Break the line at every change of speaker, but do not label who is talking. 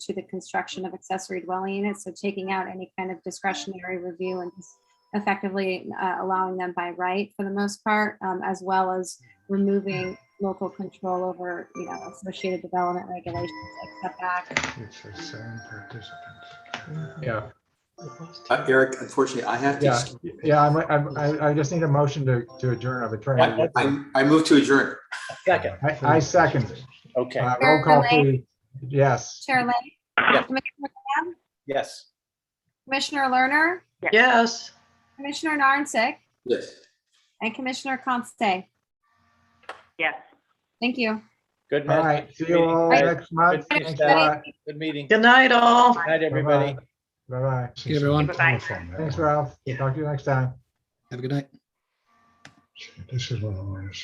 to the construction of accessory dwelling units. So taking out any kind of discretionary review and just effectively uh, allowing them by right for the most part, um, as well as removing local control over, you know, associated development regulations like setback.
It says seven participants.
Yeah,
Uh, Eric, unfortunately, I have
yeah,
to,
yeah, I'm, I'm, I, I just need a motion to, to adjourn. I've Uh, been trying to.
I, I move to adjourn.
Second,
I, I second.
okay,
Uh, Roll call, please. Yes.
Chair Lane?
Yes.
Commissioner-
yes.
Commissioner Lerner,
Yes.
Commissioner Narnsick,
Yes.
and Commissioner Constance.
Yes.
Thank you.
Good
All
night.
right. See you all next month.
Good
Thanks a lot.
Good meeting. Good
Good night, all.
night, everybody.
Bye-bye.
See everyone. Thanks,
Thanks, Ralph. Talk to you next time.
This is what I want to see.